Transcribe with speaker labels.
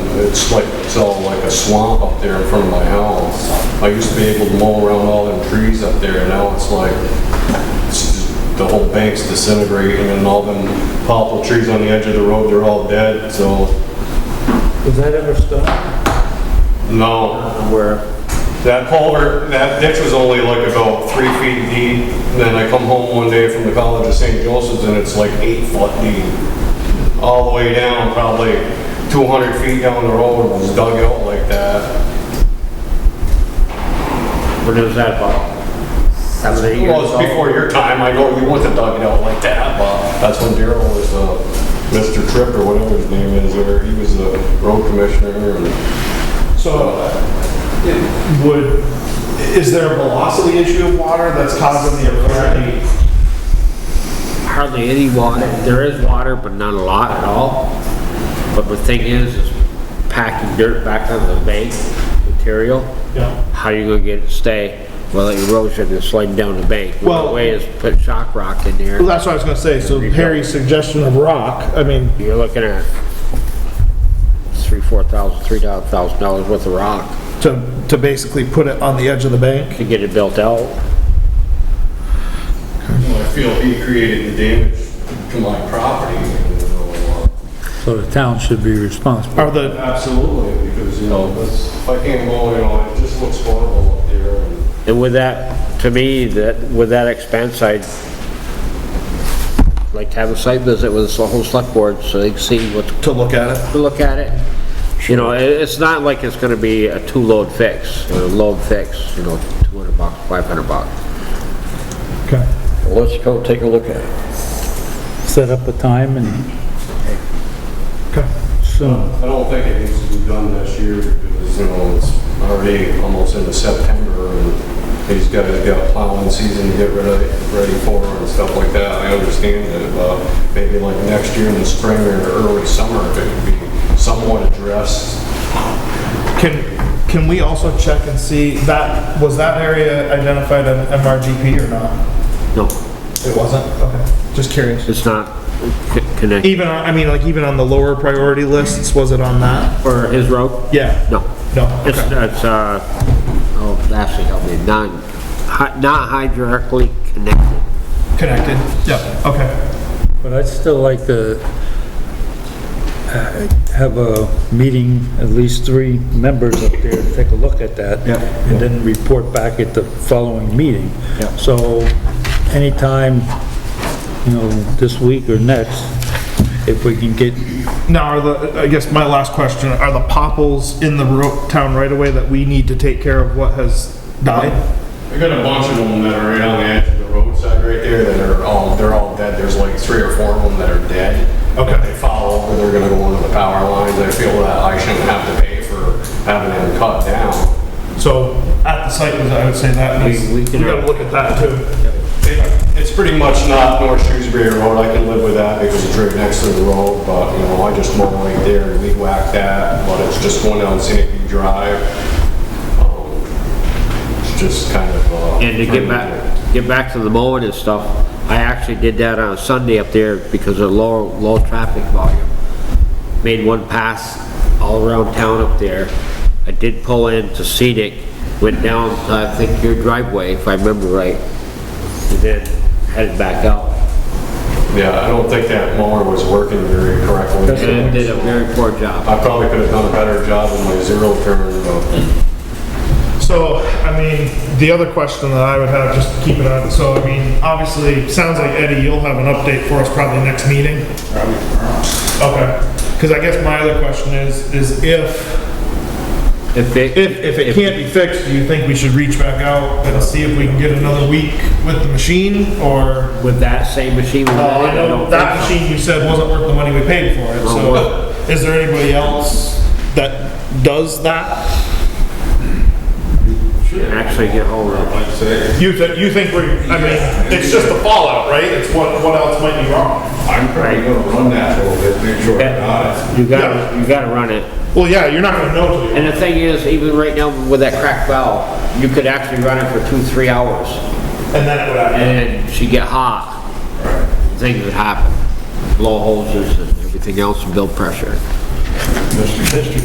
Speaker 1: it's like, it's all like a swamp up there in front of my house. I used to be able to mow around all them trees up there, and now it's like, it's just- the whole bank's disintegrating, and all them poplar trees on the edge of the road, they're all dead, so,
Speaker 2: Was that ever stopped?
Speaker 1: no.
Speaker 2: Where?
Speaker 1: That culvert, that ditch was only like about three feet deep. Then I come home one day from the College of St. Joseph's and it's like eight foot deep. All the way down, probably 200 feet down the road, it was dug out like that.
Speaker 2: When was that about? That was eight years
Speaker 1: Well, it's
Speaker 2: ago?
Speaker 1: before your time, I know you wasn't dug it out like that, but that's when Daryl was, uh, Mr. Tripp or whatever his name is, or he was the road commissioner and
Speaker 3: So it would, is there a velocity issue of water that's causing the apparent?
Speaker 4: hardly any water. There is water, but not a lot at all. But the thing is, is packing dirt back on the bank material.
Speaker 3: Yeah.
Speaker 4: How you gonna get it to stay? Well, the erosion is sliding down the bank.
Speaker 3: Well-
Speaker 4: One way is put shock rock in there.
Speaker 3: Well, that's what I was gonna say, so Harry's suggestion of rock, I mean,
Speaker 4: You're looking at three, four thousand, three thousand dollars worth of rock
Speaker 3: to, to basically put it on the edge of the bank.
Speaker 4: to get it built out.
Speaker 1: I feel he created the damage to my property. you know, uh,
Speaker 5: So the town should be responsible.
Speaker 3: Are the,
Speaker 1: Absolutely, because, you know, that's, if I can't go, you know, it just looks horrible up there. and
Speaker 4: And with that, to me, that, with that expense, I'd like to have a site visit with the whole select board so they can see what's
Speaker 3: to look at it?
Speaker 4: to look at it. You know, it, it's not like it's gonna be a two-load fix, or a load fix, you know, two hundred bucks, five hundred bucks.
Speaker 3: Okay.
Speaker 4: Let's go take a look at it.
Speaker 5: Set up a time and
Speaker 3: Okay.
Speaker 5: soon.
Speaker 1: I don't think it needs to be done this year because, you know, it's already almost into September and these guys got plowing season to get ready, ready for and stuff like that. I understand that, but maybe like next year in the spring or early summer, if it could be somewhat addressed.
Speaker 3: Can, can we also check and see that, was that area identified in MRGP or not?
Speaker 4: No,
Speaker 3: It wasn't? Okay, just curious.
Speaker 4: it's not c- connected.
Speaker 3: Even, on I mean, like even on the lower priority lists, was it on that?
Speaker 4: For his road?
Speaker 3: Yeah.
Speaker 4: No.
Speaker 3: No,
Speaker 4: It's,
Speaker 3: okay.
Speaker 4: it's, uh, oh, actually, help me, not, hy- not hydraulically connected.
Speaker 3: Connected? Yeah, okay.
Speaker 5: But I'd still like to uh, have a meeting, at least three members up there, to take a look at that.
Speaker 3: Yeah.
Speaker 5: And then report back at the following meeting.
Speaker 3: Yeah.
Speaker 5: So anytime, you know, this week or next, if we can get
Speaker 3: Now, are the, I guess my last question, are the popples in the ro- town right away that we need to take care of what has died?
Speaker 1: I got a bunch of them that are right on the edge of the roadside right there that are all, they're all dead. There's like three or four of them that are dead.
Speaker 3: Okay.
Speaker 1: If They fall over, they're gonna go under the power lines. I feel that I shouldn't have to pay for having them cut down.
Speaker 3: So at the site, visit, I would say that is,
Speaker 4: We- we
Speaker 3: we
Speaker 4: can-
Speaker 3: gotta look at that too.
Speaker 1: It- It's pretty much not North Shrewsbury Road. I can live with that because it's right next to the road, but, you know, I just mow right there and weed whack that, but it's just going down scenic View drive. Um, It's just kind of, uh.
Speaker 4: And to get back, get back to the mowing and stuff, I actually did that on Sunday up there because of low, low traffic volume. Made one pass all around town up there. I did pull into scenic, went down, to, I think your driveway, if I remember right, and then headed back out.
Speaker 1: Yeah, I don't think that mower was working very correctly.
Speaker 4: And it did a very poor job.
Speaker 1: I probably could have done a better job with my zero turn, but
Speaker 3: So, I mean, the other question that I would have, just keep it on, so I mean, obviously, sounds like Eddie, you'll have an update for us probably next meeting? Probably tomorrow. Okay, cause I guess my other question is, is if
Speaker 4: If it,
Speaker 3: If, if it can't be fixed, do you think we should reach back out and see if we can get another week with the machine, or?
Speaker 4: with that same machine. we
Speaker 3: Oh, I
Speaker 4: had,
Speaker 3: know,
Speaker 4: don't
Speaker 3: that
Speaker 4: think so.
Speaker 3: machine you said wasn't worth the money we paid for it, so is there anybody else that does that?
Speaker 4: Actually get hold of it.
Speaker 3: You think, you think we're, I mean, it's just the fallout, right? It's what, what else might be wrong?
Speaker 1: I'm probably gonna run that a little bit, make sure it's not.
Speaker 4: You gotta, you gotta run it.
Speaker 3: Well, yeah, you're not gonna know till you.
Speaker 4: And the thing is, even right now with that cracked valve, you could actually run it for two, three hours,
Speaker 3: And then it would happen.
Speaker 4: and she'd get hot. Things would happen, blow hoses and everything else, and build pressure.
Speaker 6: Mr. Mr.